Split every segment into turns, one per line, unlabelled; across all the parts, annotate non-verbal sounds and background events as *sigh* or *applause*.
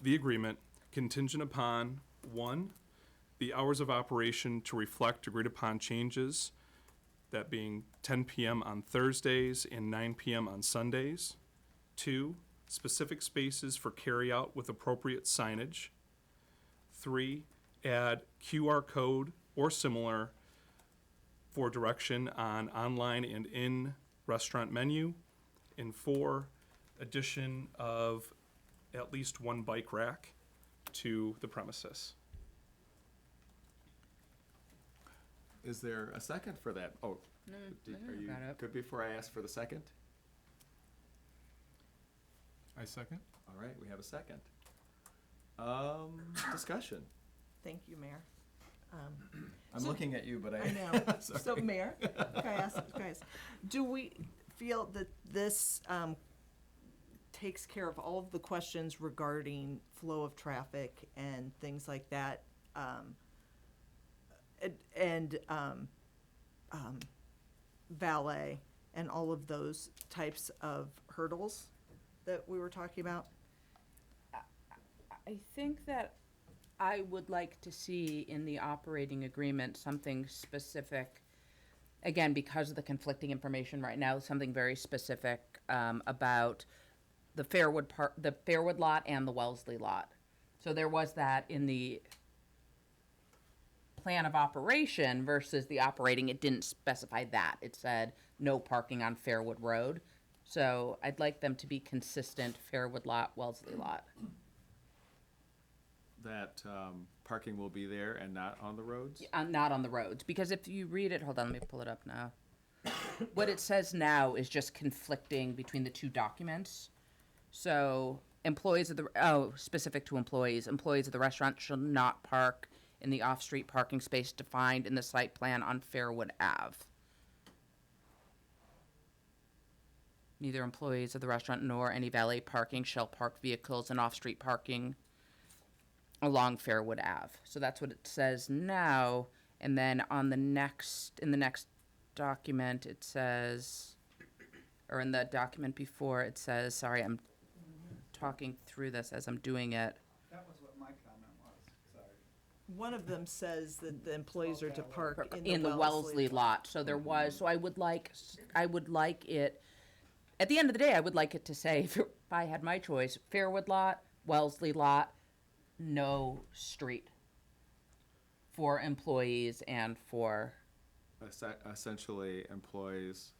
the agreement contingent upon, one, the hours of operation to reflect agreed upon changes, that being ten PM on Thursdays and nine PM on Sundays. Two, specific spaces for carryout with appropriate signage. Three, add QR code or similar for direction on online and in restaurant menu. And four, addition of at least one bike rack to the premises.
Is there a second for that? Oh, d-
I
are you
got it.
good before I ask for the second?
I second.
All right, we have a second. Um, discussion.
Thank you, Mayor. Um,
I'm
So-
looking at you, but
I
I,
know. So,
Sorry.
Mayor, can I ask, guys, do we feel that this um, takes care of all of the questions regarding flow of traffic and things like that? um, and- And um, um, valet and all of those types of hurdles that we were talking about?
I think that I would like to see in the operating agreement something specific. Again, because of the conflicting information right now, something very specific um, about the Fairwood part, the Fairwood lot and the Wellesley lot. So there was that in the plan of operation versus the operating. It didn't specify that. It said no parking on Fairwood Road. So I'd like them to be consistent Fairwood lot, Wellesley lot.
that, um, parking will be there and not on the roads?
uh, not on the roads because if you read it hold on let me pull it up now what it says now is just conflicting between the two documents so employees of the oh specific to employees employees of the restaurant shall not park in the off-street parking space defined in the site plan on fairwood ave neither employees of the restaurant nor any valet parking shall park vehicles in off-street parking along Fairwood Ave. So that's what it says now. And then on the next, in the next document, it says, or in the document before, it says, sorry, I'm talking through this as I'm doing it.
That was what my comment was, sorry.
One of them says that the employees are to park
in the Wellesley lot, so there was, so I would like, s- I would like it, at the end of the day, I would like it to say, *laughs* if I had my choice, Fairwood lot, Wellesley lot, no street for employees and for,
Esse- Essentially, employees,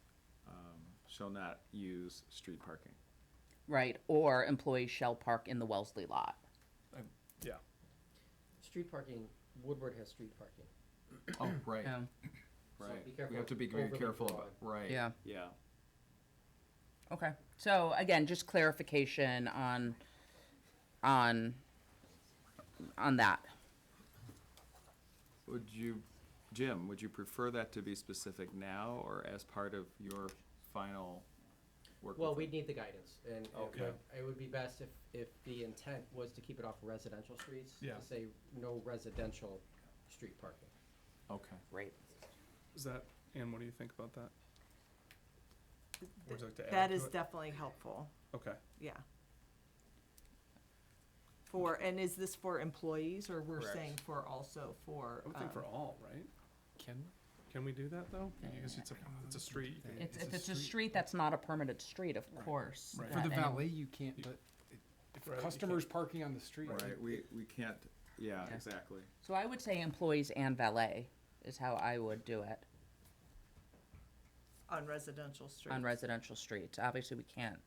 um, shall not use street parking.
right, or employees shall park in the Wellesley lot.
Yeah.
Street parking, Woodward has street parking.
Oh, right,
Yeah,
So
right.
be careful
We have to be very
overly
careful about,
broad.
right.
yeah,
Yeah.
okay. So again, just clarification on, on, on that.
Would you, Jim, would you prefer that to be specific now or as part of your final work?
Well,
with
we'd
it?
need the guidance, and it
Okay.
would- it would be best if, if the intent was to keep it off residential streets,
Yeah.
to say no residential street parking.
Okay.
Great.
Is that, Ann, what do you think about that? Would you like to add
That
to
is
it?
definitely helpful.
Okay.
Yeah. For, and is this for employees, or we're
Correct.
saying for also for?
I would think for
um,
all, right? Can, can we do that, though? Because it's a, it's a street. you can-
It's, if it's a street, that's not a permitted street, of course.
Right.
For the
that any-
valet, you can't, but
Right,
if
you
customers parking on the street.
Right, we, we can't, yeah,
Yeah.
exactly.
So I would say employees and valet is how I would do it
On residential streets?
on residential streets. Obviously, we can't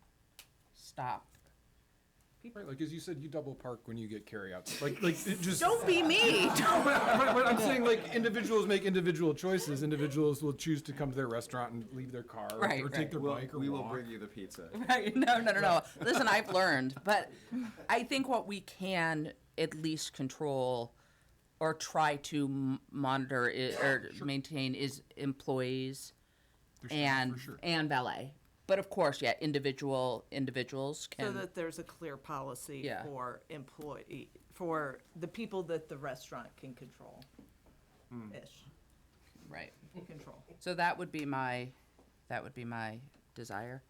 stop.
Right, like as you said, you double park when you get carryouts. Like, like
*laughs*
it just.
Don't
*laughs*
be me!
Right, but I'm saying like individuals make individual choices. Individuals will choose to come to their restaurant and leave their car or-
Right,
or
right.
take their
We'll-
bike or
we will
walk.
bring you the pizza.
Right, *laughs* no, no, no, no. Listen, I've learned, but I think what we can at least control or try to m- monitor i- or maintain is employees
For sure,
and,
for sure.
and valet. But of course, yeah, individual, individuals
So
can,
that there's a clear policy
Yeah.
for employee, for the people that the restaurant can control. Ish,
right.
Mm.
control.
So that would be my, that would be my desire,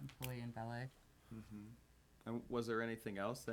employee and valet.
And was there anything else that